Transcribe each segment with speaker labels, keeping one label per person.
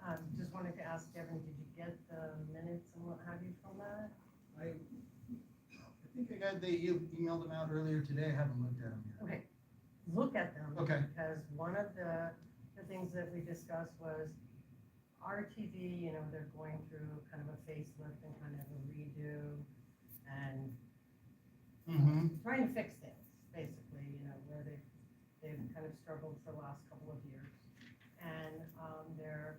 Speaker 1: Um, wanted to ask Devin, did you get the minutes and what have you from that?
Speaker 2: I, I think I got, they e- emailed them out earlier today, I haven't looked at them yet.
Speaker 1: Okay, look at them.
Speaker 2: Okay.
Speaker 1: Because one of the, the things that we discussed was RTV, you know, they're going through kind of a facelift and kind of a redo and
Speaker 2: Mm-hmm.
Speaker 1: trying to fix things, basically, you know, where they've, they've kind of struggled for the last couple of years. And, um, they're,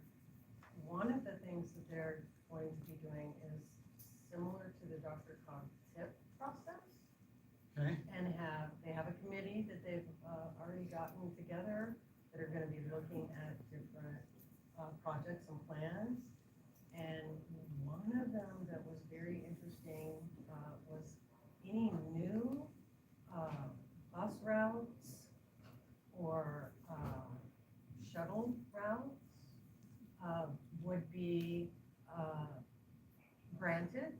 Speaker 1: one of the things that they're going to be doing is similar to the Dr. Cog tip process.
Speaker 2: Okay,
Speaker 1: And have, they have a committee that they've, uh, already gotten together that are gonna be looking at different, uh, projects and plans. And one of them that was very interesting, uh, was any new, uh, bus routes or, um, shuttle routes, uh, would be, uh, granted.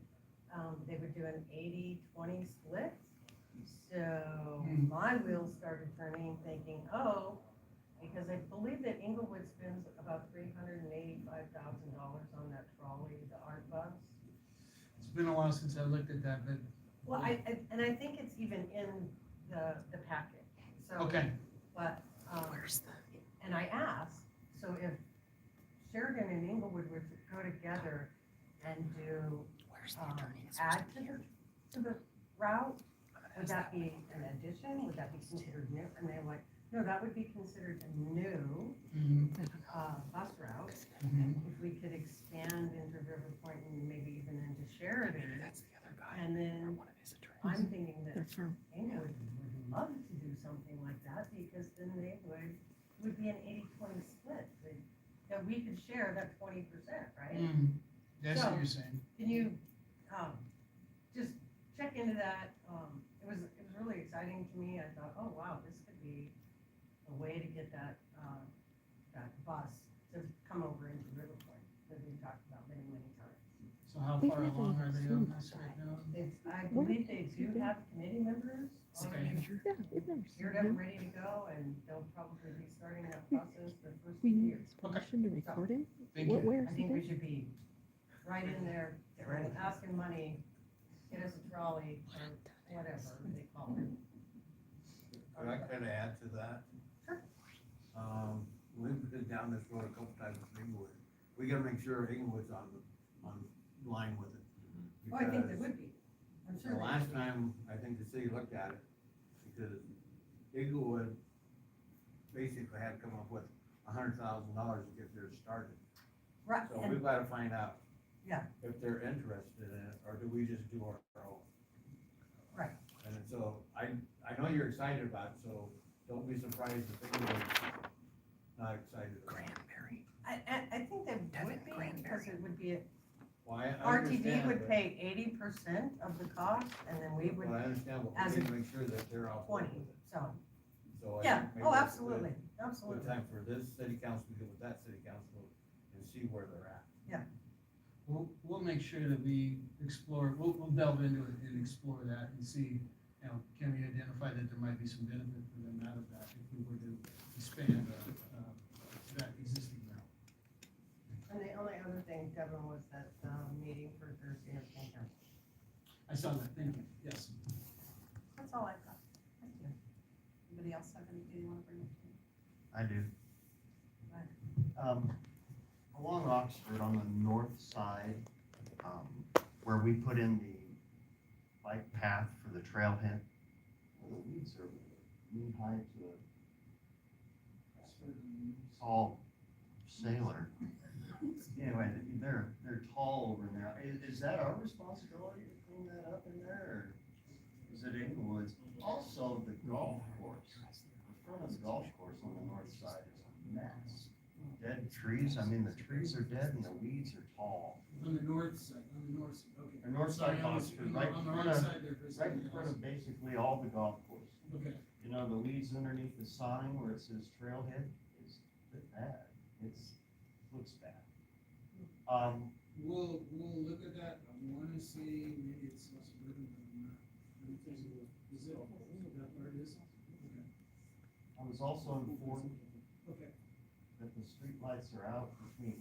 Speaker 1: Um, they would do an 80-20 split. So
Speaker 2: Hmm.
Speaker 1: my wheels started turning, thinking, oh, because I believe that Inglewood spends about three hundred and eighty-five thousand dollars on that trolley, the art bus.
Speaker 2: it's been a while since I looked at that, but,
Speaker 1: Well, I, I- and I think it's even in the, the packet, so.
Speaker 2: okay,
Speaker 1: But, um, and I asked, so if Sheridan and Inglewood were to go together and do,
Speaker 3: Where's
Speaker 1: um, add to the, to the route, would that be an addition, would that be considered new? And they're like, no, that would be considered a new,
Speaker 2: mm-hmm,
Speaker 1: uh, bus route.
Speaker 2: mm-hmm,
Speaker 1: If we could expand into River Point and maybe even into Sheridan,
Speaker 3: That's the other guy.
Speaker 1: and then
Speaker 3: One of his
Speaker 1: I'm thinking that
Speaker 3: They're from.
Speaker 1: Inglewood would love to do something like that because then they would, would be an 80-20 split. that- That we could share that twenty percent, right?
Speaker 2: mm-hmm. That's what
Speaker 1: So-
Speaker 2: you're saying.
Speaker 1: Can you, um, just check into that? Um, it was, it was really exciting to me. I thought, oh, wow, this could be a way to get that, um, that bus to come over into River Point that we talked about many, many times.
Speaker 2: So how
Speaker 3: We've
Speaker 2: far
Speaker 3: never
Speaker 2: along are they on
Speaker 3: seen
Speaker 2: this right now?
Speaker 1: It's, I
Speaker 3: Where
Speaker 1: believe they
Speaker 3: is
Speaker 1: do
Speaker 3: it?
Speaker 1: have committee members
Speaker 2: Okay.
Speaker 1: already
Speaker 3: Yeah, we've never
Speaker 1: geared up, ready to go, and they'll probably be starting that process the first
Speaker 3: We
Speaker 1: year.
Speaker 3: need permission to record him.
Speaker 2: Thank
Speaker 3: Where-
Speaker 2: you.
Speaker 3: Where
Speaker 1: I
Speaker 3: is he?
Speaker 1: think we should be right in there, asking money, get us a trolley, or whatever they call
Speaker 4: Could I
Speaker 1: it.
Speaker 4: kind of add to that?
Speaker 1: Sure.
Speaker 4: Um, we've been down this road a couple times with Inglewood. We gotta make sure Inglewood's on, the on line with it.
Speaker 1: Oh, I think there
Speaker 4: Because
Speaker 1: would be, I'm sure.
Speaker 4: The
Speaker 1: they-
Speaker 4: last time, I think the city looked at it, because Inglewood basically had to come up with a hundred thousand dollars to get theirs started.
Speaker 1: Right,
Speaker 4: So
Speaker 1: and
Speaker 4: we've gotta find out.
Speaker 1: Yeah.
Speaker 4: If they're interested in it, or do we just do our own?
Speaker 1: Right.
Speaker 4: And so, I, I know you're excited about it, so don't be surprised if anyone's not excited about it.
Speaker 3: Cranberry.
Speaker 1: I, I, I think they
Speaker 3: Devin
Speaker 1: would be, because it would be, a-
Speaker 4: Why, I
Speaker 1: RTV
Speaker 4: understand,
Speaker 1: would
Speaker 4: but-
Speaker 1: pay eighty percent of the cost, and then we
Speaker 4: But
Speaker 1: would
Speaker 4: I understand, but
Speaker 1: as
Speaker 4: we need to make sure that they're all. for it.
Speaker 1: twenty, so,
Speaker 4: So I
Speaker 1: yeah,
Speaker 4: think maybe
Speaker 1: oh,
Speaker 4: that's a
Speaker 1: absolutely,
Speaker 4: Good good
Speaker 1: absolutely.
Speaker 4: time for this city council to get with that city council and see where they're at.
Speaker 2: We'll, we'll make sure that we explore, we'll, we'll delve into it and explore that and see, you know, can we identify that there might be some benefit for them out of that if we were to expand, uh, uh, that existing route.
Speaker 1: And the only other thing, Devin, was that, um, meeting for Thursday of St. John's.
Speaker 2: I saw that, thank you, yes.
Speaker 1: That's all I've got. Thank you. Anybody else have anything you wanna bring up to me?
Speaker 5: I do.
Speaker 1: Right.
Speaker 5: Um, along Oxford on the north side, um, where we put in the bike path for the trailhead, well, the weeds are knee high to a tall sailor. Anyway, they're, they're tall over now. Is, is that our responsibility to clean that up in there? or Is it Inglewood's? Also, the golf course. The front of the golf course on the north side is a mess. Dead trees, I mean, the trees are dead and the weeds are tall.
Speaker 2: On the north side, on the north side, okay.
Speaker 5: The north side of Oxford, right
Speaker 2: On
Speaker 5: in
Speaker 2: the
Speaker 5: front
Speaker 2: right
Speaker 5: of,
Speaker 2: side there, Chris.
Speaker 5: right in front of basically all the golf course.
Speaker 2: Okay,
Speaker 5: You know, the weeds underneath the sign where it says trailhead is bad. It's, looks bad. Um,
Speaker 2: we'll, we'll look at that, I wanna say maybe it's not suburban, but I'm not, I'm thinking, is it, that part is? Okay.
Speaker 5: I was also informed
Speaker 2: Okay.
Speaker 5: that the streetlights are out between